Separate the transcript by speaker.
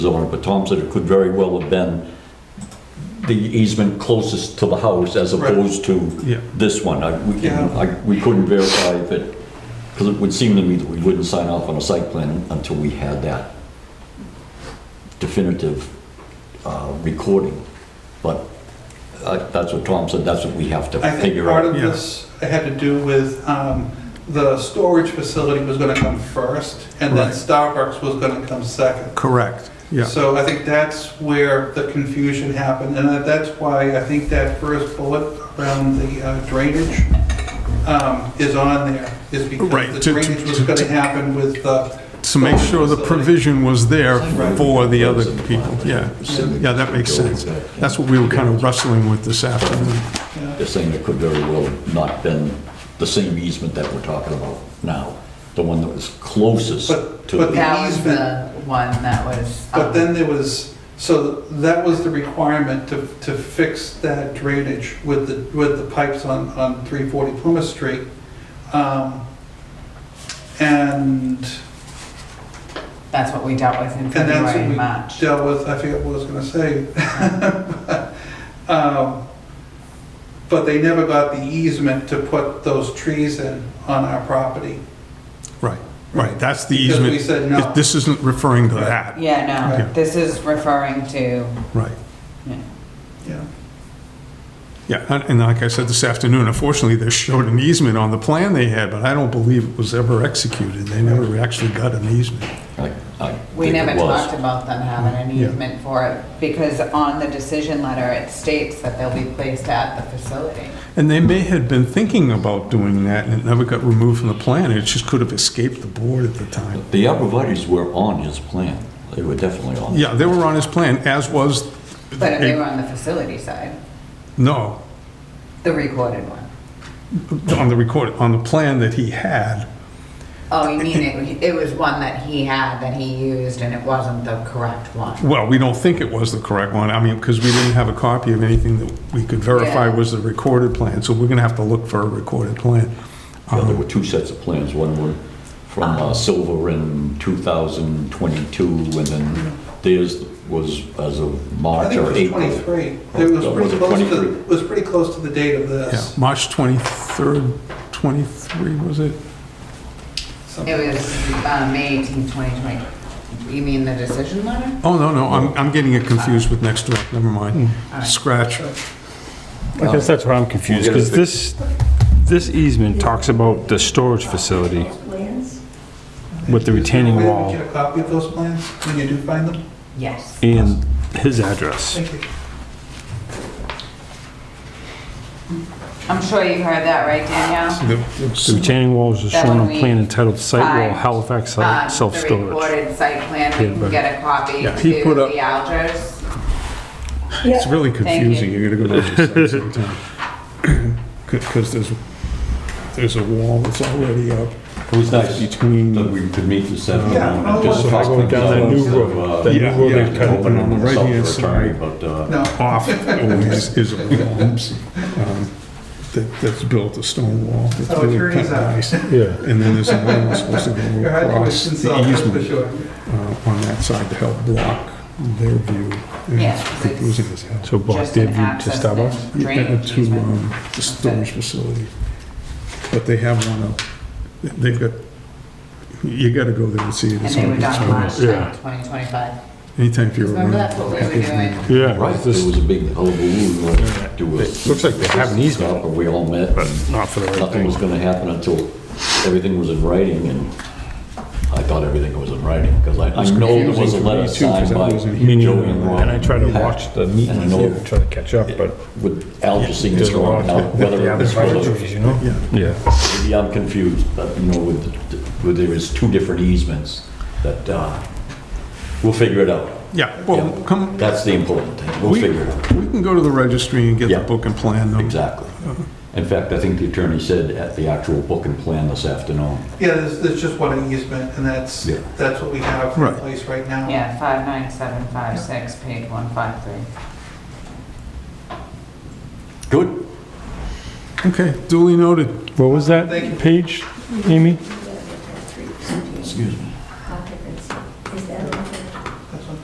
Speaker 1: zoning, but Tom said it could very well have been the easement closest to the house as
Speaker 2: Right.
Speaker 1: opposed to
Speaker 3: Yeah.
Speaker 1: this one. I- We couldn't,
Speaker 2: Yeah.
Speaker 1: I- we couldn't verify if it, because it would seem to me that we wouldn't sign off on a site plan until we had that definitive uh, recording. But uh, that's what Tom said, that's what we have to
Speaker 2: I think
Speaker 1: figure
Speaker 2: part
Speaker 1: out.
Speaker 2: of
Speaker 3: yeah.
Speaker 2: this had to do with um, the storage facility was going to come first, and then
Speaker 3: Right.
Speaker 2: Starbucks was going to come second.
Speaker 3: Correct, yeah.
Speaker 2: So I think that's where the confusion happened, and that- that's why I think that first bullet around the uh, drainage um, is on there, is
Speaker 3: Right,
Speaker 2: because the
Speaker 3: to- to-
Speaker 2: drainage was
Speaker 3: to-
Speaker 2: going to
Speaker 3: to-
Speaker 2: happen with the...
Speaker 3: To make sure the provision was there for the other people, yeah. Yeah, that makes sense. That's what we were kind of wrestling with this afternoon.
Speaker 2: yeah.
Speaker 1: They're saying it could very well have not been the same easement that we're talking about now, the one that was closest
Speaker 2: But-
Speaker 1: to.
Speaker 2: but
Speaker 1: the-
Speaker 2: that
Speaker 4: That was the one that was.
Speaker 2: But
Speaker 4: um,
Speaker 2: then there was, so that was the requirement to, to fix that drainage with the, with the pipes on, on 340 Plymouth Street. Um, And,
Speaker 4: That's what we dealt with in
Speaker 2: and that's
Speaker 4: February and
Speaker 2: what we
Speaker 4: March.
Speaker 2: dealt with, I forget what I was gonna say. Um, But they never got the easement to put those trees in on our property.
Speaker 3: Right, right, that's the
Speaker 2: Because we said
Speaker 3: easement.
Speaker 2: no.
Speaker 3: This isn't referring to that,
Speaker 4: Yeah,
Speaker 3: Yeah.
Speaker 4: no, this is referring to,
Speaker 3: right.
Speaker 4: yeah,
Speaker 2: Yeah.
Speaker 3: Yeah, and- and like I said this afternoon, unfortunately, they showed an easement on the plan they had, but I don't believe it was ever executed. They never actually got an easement.
Speaker 1: I- I
Speaker 4: we
Speaker 1: think it
Speaker 4: never
Speaker 1: was.
Speaker 4: talked about them having an
Speaker 3: Yeah.
Speaker 4: easement for it because on the decision letter, it states that they'll be placed at the facility.
Speaker 3: And they may have been thinking about doing that, and it never got removed from the plan. It just could have escaped the board at the time.
Speaker 1: The arborvitae's were on his plan. They were definitely on.
Speaker 3: Yeah, they were on his plan, as was...
Speaker 4: But if they were on the facility side,
Speaker 3: No,
Speaker 4: the recorded one.
Speaker 3: on the record, on the plan that he had,
Speaker 4: Oh, you mean it, it was one that he had that he used and it wasn't the correct one?
Speaker 3: well, we don't think it was the correct one, I mean, because we didn't have a copy of anything that we could verify
Speaker 4: Yeah.
Speaker 3: was the recorded plan, so we're gonna have to look for a recorded plan.
Speaker 1: Yeah, There were two sets of plans, one were from uh, Silver in 2022, and then theirs was as of
Speaker 2: I
Speaker 1: March
Speaker 2: think it
Speaker 1: or
Speaker 2: was
Speaker 1: April.
Speaker 2: 23. It was
Speaker 1: Oh, was
Speaker 2: pretty
Speaker 1: it
Speaker 2: close to,
Speaker 1: 23?
Speaker 2: it was pretty close to the date of
Speaker 3: Yeah,
Speaker 2: this.
Speaker 3: March 23rd, 23, was it?
Speaker 2: something.
Speaker 4: It was, uh, May 18, 2020. You mean the decision letter?
Speaker 3: Oh, no, no, I'm, I'm getting it confused with next door, never mind, scratch.
Speaker 5: I guess that's where I'm confused,
Speaker 1: We'll get it
Speaker 5: because this, this easement talks about the storage facility with the retaining
Speaker 2: Did you
Speaker 5: wall
Speaker 2: Get a copy of those plans when you do find them?
Speaker 4: Yes.
Speaker 5: and his address.
Speaker 2: Thank you.
Speaker 4: I'm sure you heard that, right, Danielle?
Speaker 5: The retaining wall is shown on plan entitled Site Wall Halifax
Speaker 4: Uh, The
Speaker 5: Self-Storage.
Speaker 4: recorded site plan, we
Speaker 5: Yeah,
Speaker 4: can
Speaker 5: right.
Speaker 4: get a copy
Speaker 3: Yeah,
Speaker 4: to
Speaker 3: he put up-
Speaker 4: the Algers.
Speaker 3: It's really confusing,
Speaker 4: you.
Speaker 3: you gotta go to the site sometime. Because there's, there's a wall that's already up
Speaker 1: It was nice
Speaker 3: between...
Speaker 1: that we could meet this afternoon.
Speaker 2: Yeah.
Speaker 1: and just
Speaker 2: So
Speaker 1: talk
Speaker 5: going
Speaker 1: things
Speaker 5: down that
Speaker 1: out
Speaker 5: new
Speaker 1: instead
Speaker 5: road,
Speaker 1: of, uh,
Speaker 5: that new
Speaker 3: Yeah,
Speaker 5: road
Speaker 3: yeah,
Speaker 5: they've cut
Speaker 3: open
Speaker 1: opening
Speaker 3: on the
Speaker 1: this up
Speaker 3: right-hand
Speaker 1: for attorney,
Speaker 3: side.
Speaker 1: But, uh,
Speaker 2: No.
Speaker 3: Off is, is a wall, um, that, that's built a stone wall. It's
Speaker 2: Oh,
Speaker 3: really
Speaker 2: sure is
Speaker 3: kinda
Speaker 2: that.
Speaker 3: nice. And then there's a lane that's supposed to go
Speaker 2: Your
Speaker 3: across
Speaker 2: hydration
Speaker 3: the
Speaker 2: cell, that's for
Speaker 3: easement
Speaker 2: sure.
Speaker 3: uh, on that side to help block their view. And
Speaker 4: Yeah,
Speaker 3: it's
Speaker 4: 'cause it's
Speaker 3: confusing as hell.
Speaker 5: So block
Speaker 4: Just
Speaker 5: their
Speaker 4: an
Speaker 5: view to
Speaker 4: access
Speaker 5: Starbucks?
Speaker 4: and
Speaker 3: Yeah,
Speaker 4: drainage
Speaker 3: To
Speaker 4: easement.
Speaker 3: um, the storage facility. But they have one up, they've got, you gotta go there and see it.
Speaker 4: And
Speaker 3: It's
Speaker 4: they
Speaker 3: on-
Speaker 4: were
Speaker 3: it's
Speaker 4: done
Speaker 3: on-
Speaker 4: last
Speaker 5: Yeah.
Speaker 4: time, 2025.
Speaker 3: Anytime if you're around.
Speaker 4: Remember that's what we were doing?
Speaker 5: Yeah,
Speaker 1: Right,
Speaker 5: right,
Speaker 1: there
Speaker 5: this,
Speaker 1: was a big uh, hullabaloo. like, do a-
Speaker 5: It looks like they have an easement.
Speaker 1: We all met.
Speaker 5: but not for the right
Speaker 1: Nothing was
Speaker 5: thing.
Speaker 1: gonna happen until everything was in writing, and I thought everything was in writing, because I, I know there was a letter
Speaker 3: confusing for me, too, 'cause
Speaker 1: signed
Speaker 3: I
Speaker 1: by
Speaker 3: wasn't here.
Speaker 5: Meaning,
Speaker 1: Joey and Ron.
Speaker 5: and I try to watch the
Speaker 1: And I
Speaker 5: meetings
Speaker 1: know-
Speaker 5: here, try to catch up, but
Speaker 1: With Al just seeing
Speaker 5: there's
Speaker 1: this
Speaker 5: a
Speaker 1: wrong,
Speaker 5: lot
Speaker 1: now,
Speaker 5: that
Speaker 1: whether
Speaker 5: the
Speaker 1: it
Speaker 5: other
Speaker 1: was,
Speaker 5: facilities, you know?
Speaker 3: Yeah.
Speaker 5: Yeah,
Speaker 1: maybe I'm confused, but, you know, with, with there was two different easements, that, uh, we'll figure it out.
Speaker 3: Yeah, well,
Speaker 1: Yeah.
Speaker 3: come,
Speaker 1: That's the important thing, we'll
Speaker 3: we,
Speaker 1: figure it out.
Speaker 3: we can go to the registry and get the
Speaker 1: Yeah.
Speaker 3: book and plan. them.
Speaker 1: Exactly. In fact, I think the attorney said at the actual book and plan this afternoon.
Speaker 2: Yeah, there's, there's just one easement, and that's,
Speaker 1: Yeah.
Speaker 2: that's what we have in
Speaker 3: Right.
Speaker 2: place right now.
Speaker 4: Yeah, 59756, page 153.
Speaker 1: Good.
Speaker 3: Okay, duly noted.
Speaker 5: what was
Speaker 2: Thank you.
Speaker 5: that page, Amy?
Speaker 1: Excuse me.